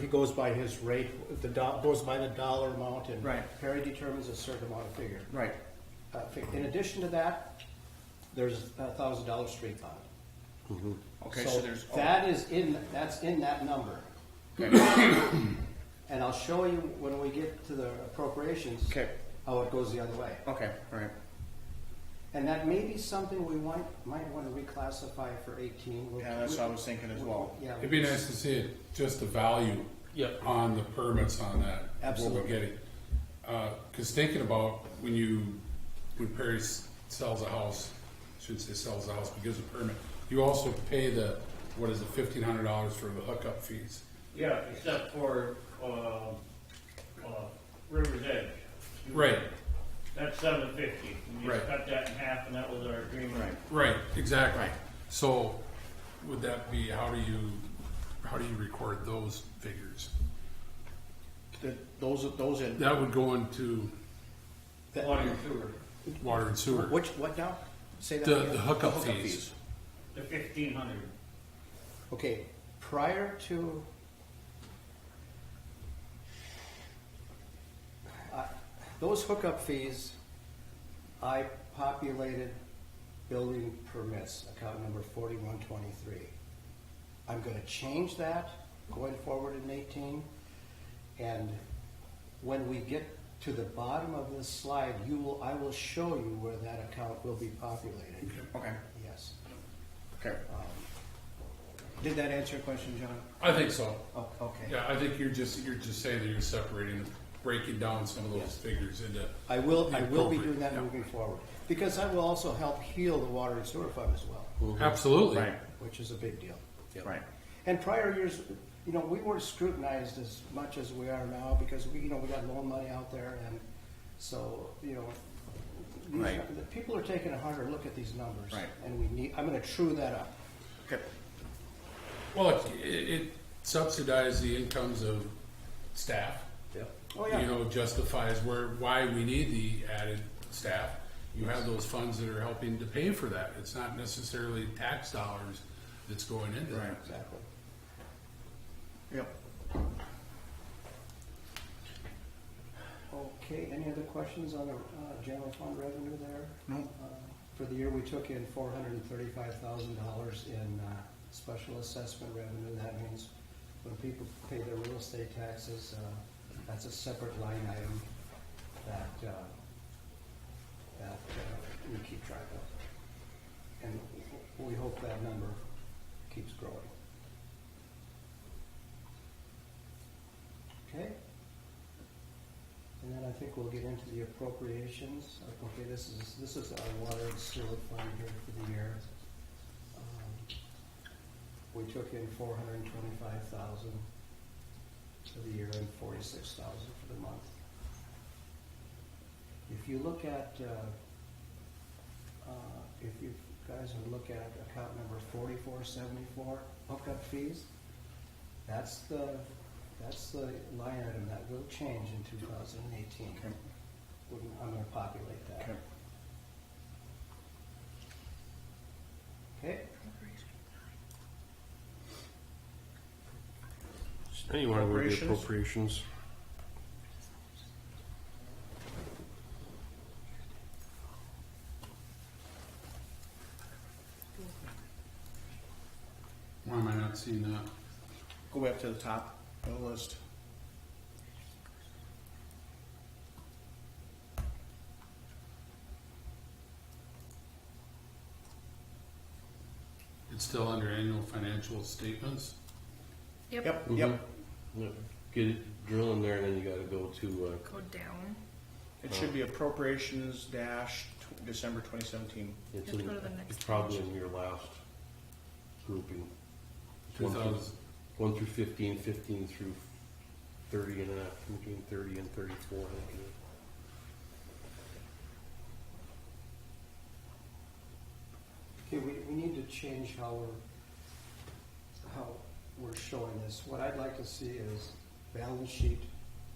He goes by his rate, the do, goes by the dollar amount and. Right. Perry determines a certain amount of figure. Right, Uh, fi- In addition to that, there's a thousand dollar street bond. okay, so there's. oh, That is in, that's in that number. okay. And I'll show you when we get to the appropriations. Okay. Oh. How it goes the other way. Okay, all right, And that may be something we want, might want to reclassify for eighteen. We'll- yeah, that's what I was thinking as well. Yeah. It'd be nice to see it, just the value. Yep. On the permits on that. What Absolutely. we're getting. Uh, cause thinking about when you, when Perry s- sells a house, shouldn't say sells a house, but gives a permit, you also pay the, what is it, fifteen hundred dollars for the hookup fees. Yeah, except for, um, uh, River's Edge. Right, That's seven fifty. We Right. just cut that in half and that was our agreement. Right. right, exactly. So would that be, how do you, how do you record those figures? The, those, those in, That would go into Water and sewer, water and sewer. which, what now? Say that The- again. the hookup fees. the fifteen hundred. Okay, prior to. I- Those hookup fees, I populated building permits, account number forty-one twenty-three. I'm gonna change that going forward in eighteen. And when we get to the bottom of this slide, you will, I will show you where that account will be populated. Okay, Yes. okay, Did that answer your question, John? I think so. Oh, okay. Yeah, I think you're just, you're just saying that you're separating, breaking down some of those figures into. I will, I will be Appropriate, doing that yeah. moving forward, because that will also help heal the water and sewer fund as well, Absolutely. right, which is a big deal. right, And prior years, you know, we weren't scrutinized as much as we are now, because we, you know, we got loan money out there, and so, you know, these- Right. the people are taking a harder look at these numbers. Right. And we need, I'm gonna true that up. okay, Well, it, it subsidizes the incomes of staff. Oh, You yeah, know, justifies where, why we need the added staff. You have those funds that are helping to pay for that. It's not necessarily tax dollars that's going into right, that. exactly. yep. Okay, any other questions on the, uh, general fund revenue there? No, Uh, For the year, we took in four hundred and thirty-five thousand dollars in uh, special assessment revenue. That means when people pay their real estate taxes, uh, that's a separate line item that, uh, that uh, we keep track of. And we hope that number keeps growing. Okay? And then I think we'll get into the appropriations. Okay, this is, this is our water and sewer fund here for the year. Um, We took in four hundred and twenty-five thousand for the year and forty-six thousand for the month. If you look at, uh, uh, if you guys would look at account number forty-four seventy-four, hookup fees, that's the, that's the line item that will change in two thousand and eighteen. okay, I'm gonna populate that, okay, okay? Now you want to go to the Appropriations? appropriations. Why am I not seeing that? go back to the top of the list. It's still under annual financial statements? Yep, Mm-hmm. Mhm. yep, No, Get it, drill in there, and then you gotta go to, uh, go down. it should be appropriations dash tw- December twenty seventeen. it's, Just in- go to the next it's probably in your last grouping. It's one through- 2000. One through fifteen, fifteen through thirty, and then after between thirty and thirty-four, I think it is. Okay, we, we need to change how we're, how we're showing this. What I'd like to see is balance sheet,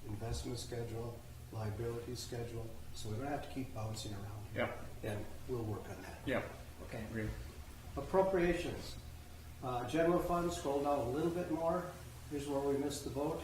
investment schedule, liability schedule, so we don't have to keep bouncing around. Yep, And we'll work on that. yep, Okay. agree. Appropriations. Uh, general fund, scroll down a little bit more. here's where we missed the boat.